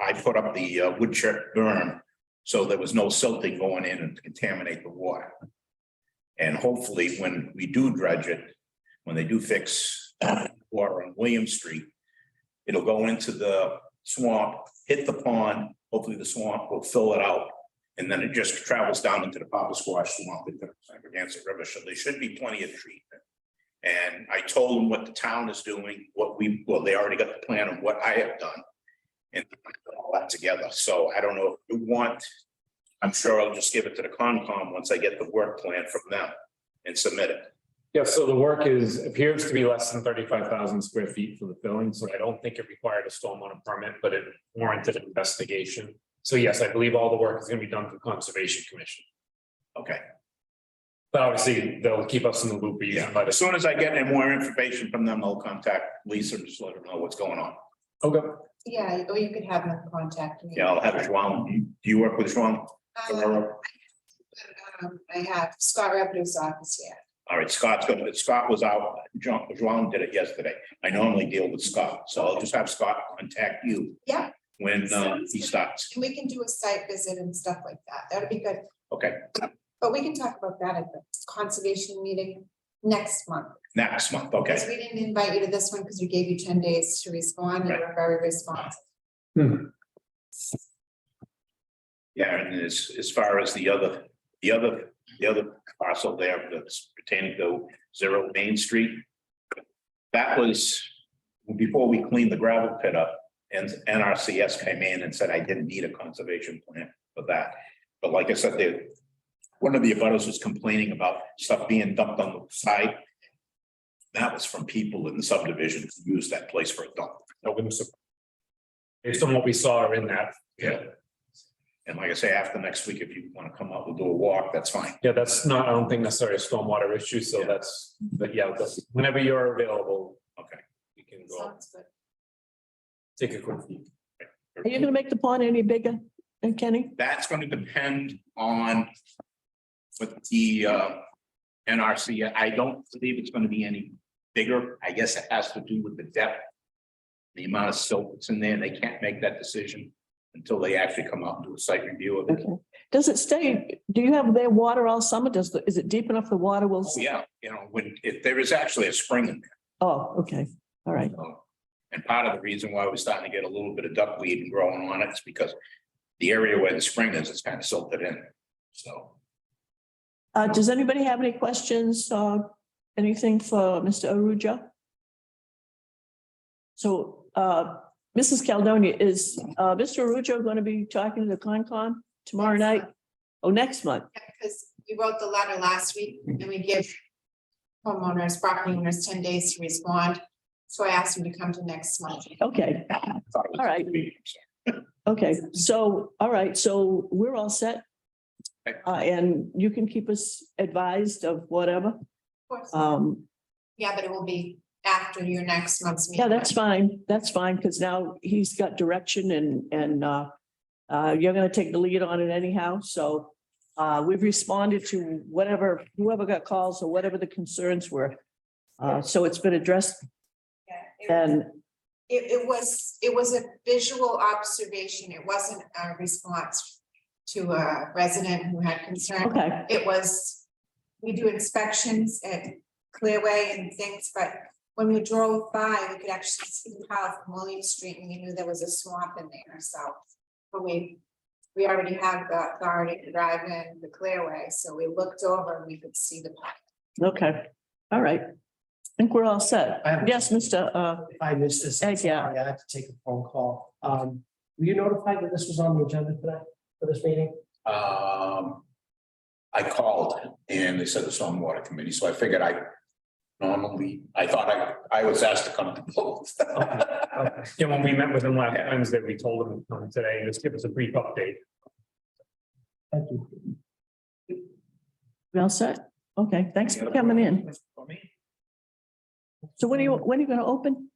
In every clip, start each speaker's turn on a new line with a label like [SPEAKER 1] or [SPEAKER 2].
[SPEAKER 1] I put up the uh, wood chip burn, so there was no silting going in and contaminate the water. And hopefully, when we do dredge it, when they do fix water on William Street, it'll go into the swamp, hit the pond, hopefully the swamp will fill it out. And then it just travels down into the Papa Squash Swamp, into the Sagregansett River, so there should be plenty of treatment. And I told them what the town is doing, what we, well, they already got the plan of what I have done. And put all that together, so I don't know if you want, I'm sure I'll just give it to the Concom once I get the work plan from them and submit it.
[SPEAKER 2] Yeah, so the work is, appears to be less than thirty-five thousand square feet for the filling, so I don't think it required a stormwater permit, but it warranted an investigation. So yes, I believe all the work is gonna be done through Conservation Commission,
[SPEAKER 1] Okay,
[SPEAKER 2] but obviously they'll keep us in the loop. we usually
[SPEAKER 1] yeah,
[SPEAKER 2] let
[SPEAKER 1] as
[SPEAKER 2] us-
[SPEAKER 1] soon as I get any more information from them, I'll contact Lisa and just let her know what's going on.
[SPEAKER 2] Okay,
[SPEAKER 3] Yeah, or you could have them contact me.
[SPEAKER 1] Yeah, I'll have Joan, do you work with Joan?
[SPEAKER 3] Um, um, I have Scott Revenue's office here.
[SPEAKER 1] All right, Scott's gonna, Scott was out, John, Joan did it yesterday. I normally deal with Scott, so I'll just have Scott contact you.
[SPEAKER 3] Yeah.
[SPEAKER 1] When uh, he starts.
[SPEAKER 3] And we can do a site visit and stuff like that. That'd be good.
[SPEAKER 1] Okay,
[SPEAKER 3] But we can talk about that at the conservation meeting next month.
[SPEAKER 1] next month, okay.
[SPEAKER 3] Because we didn't invite you to this one because we gave you ten days to respond and
[SPEAKER 1] Right.
[SPEAKER 3] we're very responsive.
[SPEAKER 1] Yeah, and as, as far as the other, the other, the other parcel there that's pertaining to Zero Main Street. That was before we cleaned the gravel pit up and NRCS came in and said I didn't need a conservation plan for that. But like I said, they, one of the abutters was complaining about stuff being dumped on the side. That was from people in the subdivision who used that place for a dump.
[SPEAKER 2] no, we must- Based on what we saw in that,
[SPEAKER 1] And like I say, after next week, if you want to come out, we'll do a walk, that's fine.
[SPEAKER 2] yeah, that's not, I don't think necessarily a stormwater issue, so that's, but yeah, that's- whenever you're available.
[SPEAKER 1] Okay.
[SPEAKER 2] You can go
[SPEAKER 3] Sounds good.
[SPEAKER 2] take a quick peek.
[SPEAKER 4] Are you gonna make the pond any bigger, uh, Kenny?
[SPEAKER 1] that's gonna depend on what the uh NRC, I don't believe it's gonna be any bigger. I guess it has to do with the depth. The amount of silt that's in there, and they can't make that decision until they actually come out and do a site review of it.
[SPEAKER 4] Okay. Does it stay, do you have their water all summer? Does, the- is it deep enough the water will?
[SPEAKER 1] So, Oh, Yeah, you know, when, if there is actually a spring in there,
[SPEAKER 4] Oh, okay, all right.
[SPEAKER 1] so. And part of the reason why we're starting to get a little bit of duckweed and growing on it is because the area where the spring is, it's kind of silted in, so.
[SPEAKER 4] Uh, does anybody have any questions, uh, anything for Mr. Arujo? So, uh, Mrs. Caldonia, is, uh, Mr. Arujo going to be talking to the Concom tomorrow night? Oh, next month?
[SPEAKER 3] Because we wrote the letter last week and we give homeowners, property owners ten days to respond. So I asked them to come to next month.
[SPEAKER 4] Okay,
[SPEAKER 1] Thought it was-
[SPEAKER 4] All right. okay, so, all right, so we're all set.
[SPEAKER 1] Okay.
[SPEAKER 4] Uh, and you can keep us advised of whatever.
[SPEAKER 3] Of course.
[SPEAKER 4] Um,
[SPEAKER 3] Yeah, but it will be after your next month's meeting.
[SPEAKER 4] yeah, that's fine. That's fine, because now he's got direction and, and, uh, uh, you're gonna take the lead on it anyhow, so, uh, we've responded to whatever, whoever got calls or whatever the concerns were. Uh, so it's been addressed
[SPEAKER 3] Yeah, It,
[SPEAKER 4] and,
[SPEAKER 3] it it was, it was a visual observation. It wasn't a response to a resident who had concern.
[SPEAKER 4] okay,
[SPEAKER 3] It was, we do inspections at Clearway and things, but when we drove by, we could actually see the house from William Street and you knew there was a swamp in there, so. But we, we already have the authority to drive in the Clearway, so we looked over and we could see the pond.
[SPEAKER 4] okay, all right. I think we're all set.
[SPEAKER 5] I have-
[SPEAKER 4] Yes, Mr. Uh,
[SPEAKER 5] If I missed this.
[SPEAKER 4] Ed, yeah.
[SPEAKER 5] Sorry, I had to take a phone call. Um, were you notified that this was on the agenda tonight for this meeting?
[SPEAKER 1] Um. I called and they said the stormwater committee, so I figured I normally, I thought I, I was asked to come to both.
[SPEAKER 2] Okay. Yeah, when we met with him last Wednesday, we told him um, today, just give us a brief update.
[SPEAKER 5] Thank you.
[SPEAKER 4] we all set? Okay, thanks for coming in. So when are you, when are you gonna open?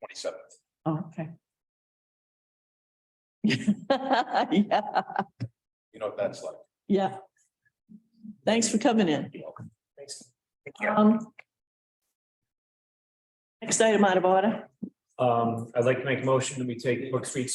[SPEAKER 1] Twenty-seven.
[SPEAKER 4] Oh, okay. Yeah,
[SPEAKER 1] you know what that's like.
[SPEAKER 4] yeah. Thanks for coming in.
[SPEAKER 5] Thanks.
[SPEAKER 4] Um. Next item out of order.
[SPEAKER 2] Um, I'd like to make a motion that we take Brook Street